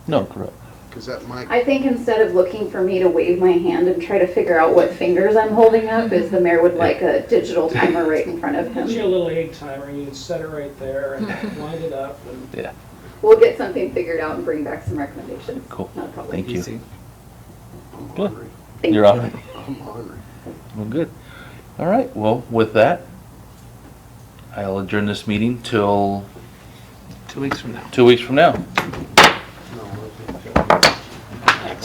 No, correct. Because that might, I think instead of looking for me to wave my hand and try to figure out what fingers I'm holding up, is the mayor would like a digital timer right in front of Get you him. a little egg timer, you can set it right there and wind it up and We'll get something figured out and bring back some recommendations. Cool. Not a problem. Thank you. Easy. I'm Good. hungry. Thank You're you. on. I'm hungry. Well, good. All right. Well, with that, I'll adjourn this meeting till Two weeks from now. two weeks from now. No, I think-